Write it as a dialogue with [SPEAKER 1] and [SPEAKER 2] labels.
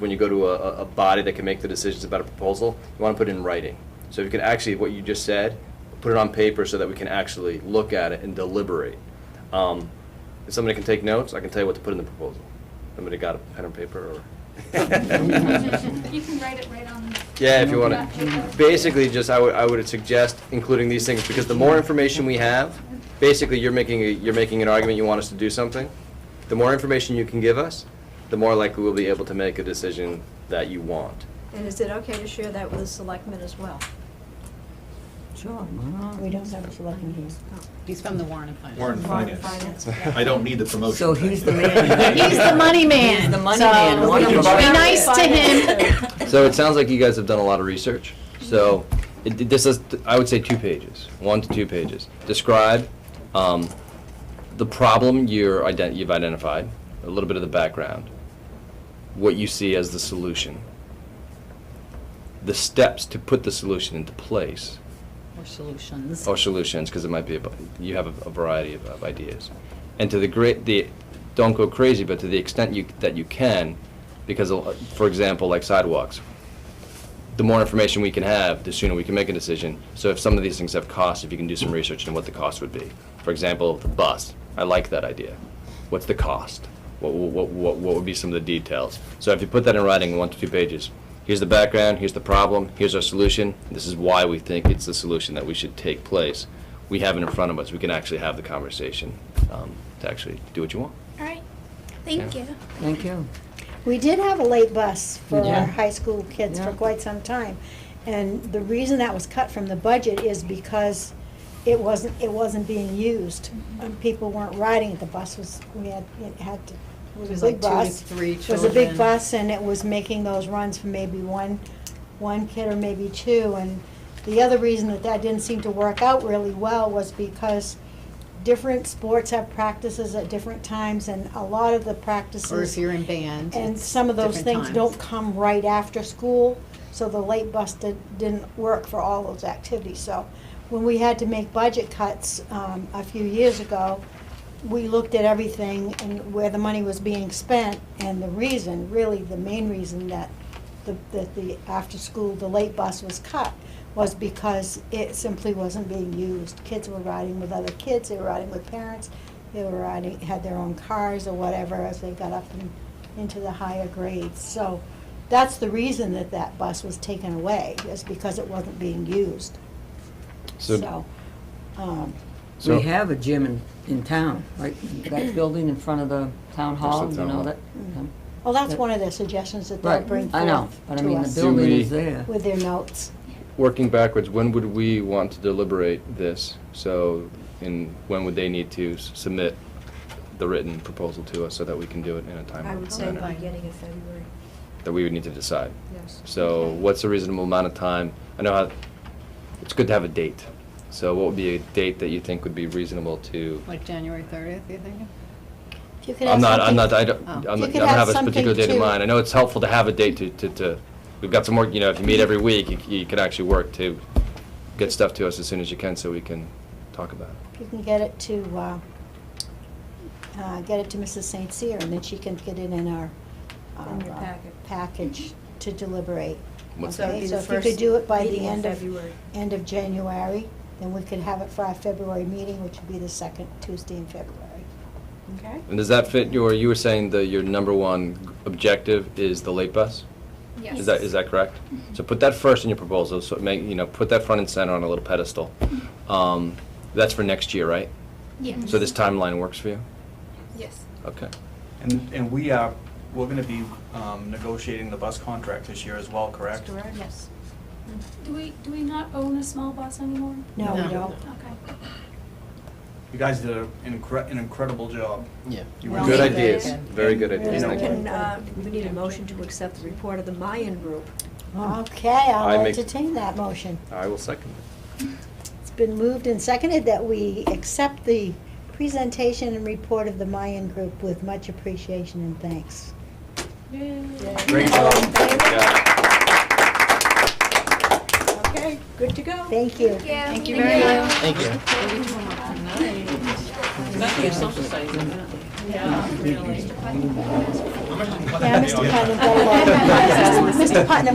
[SPEAKER 1] when you go to a, a- a body that can make the decisions about a proposal, you want to put it in writing. So if you can actually, what you just said, put it on paper so that we can actually look at it and deliberate. Um, If somebody can take notes, I can tell you what to put in the proposal. Somebody got a pen and paper or?
[SPEAKER 2] You can write it right on.
[SPEAKER 1] Yeah, if you want
[SPEAKER 2] that paper.
[SPEAKER 1] to. Basically, just, I would, I would suggest including these things, because the more information we have, basically, you're making, a- you're making an argument, you want us to do something. The more information you can give us, the more likely we'll be able to make a decision that you want.
[SPEAKER 3] And is it okay to share that with the selectmen as well?
[SPEAKER 4] Sure, we don't have a selectman here.
[SPEAKER 5] He's from the Warren and Finance.
[SPEAKER 6] Warren
[SPEAKER 3] Finance,
[SPEAKER 6] Finance.
[SPEAKER 3] yeah.
[SPEAKER 6] I don't need the promotion.
[SPEAKER 4] So he's the man.
[SPEAKER 5] He's the money man.
[SPEAKER 4] He's the money
[SPEAKER 5] so
[SPEAKER 4] man. Why
[SPEAKER 5] Be
[SPEAKER 4] don't you-
[SPEAKER 5] nice to him.
[SPEAKER 1] So it sounds like you guys have done a lot of research. So it, it- this is, I would say, two pages, one to two pages. Describe um, the problem you're ident- you've identified, a little bit of the background, what you see as the solution, the steps to put the solution into place,
[SPEAKER 5] Or solutions.
[SPEAKER 1] or solutions, because it might be, a bu- you have a a variety of, of ideas. And to the great, the, don't go crazy, but to the extent you, that you can, because, a lo- for example, like sidewalks, the more information we can have, the sooner we can make a decision. So if some of these things have costs, if you can do some research into what the cost would be. For example, the bus, I like that idea. What's the cost? What, what, what, what would be some of the details? So if you put that in writing, in one to two pages, here's the background, here's the problem, here's our solution, this is why we think it's the solution that we should take place. We have it in front of us, we can actually have the conversation, um, to actually do what you want.
[SPEAKER 7] All right, thank
[SPEAKER 1] Yeah.
[SPEAKER 7] you.
[SPEAKER 4] Thank you.
[SPEAKER 8] We did have a late bus for
[SPEAKER 4] Yeah.
[SPEAKER 8] our high school kids for
[SPEAKER 4] Yeah.
[SPEAKER 8] quite some time. And the reason that was cut from the budget is because it wasn't, it wasn't being used. And people weren't riding it, the bus was, we had, it had, to- it
[SPEAKER 5] It was
[SPEAKER 8] was a
[SPEAKER 5] like
[SPEAKER 8] big
[SPEAKER 5] two to
[SPEAKER 8] bus.
[SPEAKER 5] three
[SPEAKER 8] It was a
[SPEAKER 5] children.
[SPEAKER 8] big bus and it was making those runs for maybe one, one kid or maybe two. And the other reason that that didn't seem to work out really well was because different sports have practices at different times and a lot of the practices.
[SPEAKER 5] Or if you're in band.
[SPEAKER 8] And
[SPEAKER 5] it's
[SPEAKER 8] some of those
[SPEAKER 5] different
[SPEAKER 8] things
[SPEAKER 5] times.
[SPEAKER 8] don't come right after school, so the late bus did, didn't work for all those activities. So when we had to make budget cuts um, a few years ago, we looked at everything and where the money was being spent and the reason, really the main reason that the, that the after-school, the late bus was cut was because it simply wasn't being used. Kids were riding with other kids, they were riding with parents, they were riding, had their own cars or whatever as they got up and into the higher grades. So that's the reason that that bus was taken away, is because it wasn't being used. So, um,
[SPEAKER 1] So-
[SPEAKER 4] We have a gym in, in town, right, that building in front of the town hall,
[SPEAKER 1] There's
[SPEAKER 4] you
[SPEAKER 1] the
[SPEAKER 4] know
[SPEAKER 1] town
[SPEAKER 4] that? um,
[SPEAKER 8] well, that's one of the suggestions that they'll
[SPEAKER 4] Right,
[SPEAKER 8] bring forth
[SPEAKER 4] I know, but I
[SPEAKER 8] to
[SPEAKER 4] mean, the
[SPEAKER 8] us
[SPEAKER 4] building
[SPEAKER 1] we-
[SPEAKER 4] is there.
[SPEAKER 8] With their notes.
[SPEAKER 1] working backwards, when would we want to deliberate this? So, and when would they need to s- submit the written proposal to us so that we can do it in a
[SPEAKER 3] I
[SPEAKER 1] timely
[SPEAKER 3] would say by
[SPEAKER 1] manner?
[SPEAKER 3] beginning of February,
[SPEAKER 1] That we would need to decide.
[SPEAKER 3] yes.
[SPEAKER 1] So what's a reasonable amount of time? I know how, it's good to have a date. So what would be a date that you think would be reasonable to?
[SPEAKER 5] Like January 30th, you think?
[SPEAKER 8] If you could have
[SPEAKER 1] I'm not, I'm
[SPEAKER 8] something-
[SPEAKER 1] not, I don't,
[SPEAKER 5] Oh.
[SPEAKER 1] I'm
[SPEAKER 8] You
[SPEAKER 1] not- I
[SPEAKER 8] could
[SPEAKER 1] don't
[SPEAKER 8] have
[SPEAKER 1] have a
[SPEAKER 8] something
[SPEAKER 1] particular date in
[SPEAKER 8] to-
[SPEAKER 1] mind. I know it's helpful to have a date to, to, to, we've got some work, you know, if you meet every week, you c- you can actually work to get stuff to us as soon as you can so we can talk about it.
[SPEAKER 8] If you can get it to, uh, uh, get it to Mrs. St. Cyr, and then she can get it in our.
[SPEAKER 3] In your
[SPEAKER 8] our, uh,
[SPEAKER 3] packet.
[SPEAKER 8] Package to deliberate.
[SPEAKER 1] What's
[SPEAKER 3] So it'd
[SPEAKER 8] Okay,
[SPEAKER 3] be
[SPEAKER 8] so
[SPEAKER 3] the
[SPEAKER 8] if you could
[SPEAKER 3] first
[SPEAKER 8] do it by the
[SPEAKER 3] meeting in
[SPEAKER 8] end of-
[SPEAKER 3] February.
[SPEAKER 8] End of January, then we could have it for our February meeting, which would be the second Tuesday in February.
[SPEAKER 3] Okay.
[SPEAKER 1] And does that fit your, you were saying that your number one objective is the late bus?
[SPEAKER 2] Yes.
[SPEAKER 1] Is that, is that correct?
[SPEAKER 8] Mm-hmm.
[SPEAKER 1] So put that first in your proposal, so make, you know, put that front and center on a little pedestal.
[SPEAKER 8] Mm-hmm.
[SPEAKER 1] Um, That's for next year, right?
[SPEAKER 2] Yes.
[SPEAKER 1] So this
[SPEAKER 8] Mm-hmm.
[SPEAKER 1] timeline works for you?
[SPEAKER 2] Yes.
[SPEAKER 1] Okay.
[SPEAKER 9] And, and we are, we're gonna be um, negotiating the bus contract this year as well, correct?
[SPEAKER 3] Correct. Yes.
[SPEAKER 2] Do we, do we not own a small bus anymore?
[SPEAKER 8] No, we
[SPEAKER 5] No.
[SPEAKER 8] don't.
[SPEAKER 2] Okay.
[SPEAKER 9] You guys did an incre- an incredible job.
[SPEAKER 1] Yeah.
[SPEAKER 9] You
[SPEAKER 5] Well,
[SPEAKER 9] really
[SPEAKER 1] Good
[SPEAKER 5] we
[SPEAKER 9] did.
[SPEAKER 5] did.
[SPEAKER 1] ideas, very good
[SPEAKER 8] Really
[SPEAKER 1] ideas,
[SPEAKER 8] good.
[SPEAKER 1] thank you.
[SPEAKER 3] And, uh, we need a motion to accept the report of the Mayan group.
[SPEAKER 8] Okay,
[SPEAKER 1] I
[SPEAKER 8] I'll
[SPEAKER 1] make-
[SPEAKER 8] entertain that motion.
[SPEAKER 1] I will second
[SPEAKER 8] It's been moved and seconded that we accept the presentation and report of the Mayan Group with much appreciation and thanks.
[SPEAKER 9] Great job.
[SPEAKER 3] Okay, good to go.
[SPEAKER 8] Thank you.
[SPEAKER 7] Thank
[SPEAKER 5] you very much.
[SPEAKER 1] Thank you.
[SPEAKER 5] Not your social studies, isn't it? Yeah, really.
[SPEAKER 8] Yeah, Mr. Putnam, got a lot. Mr. Putnam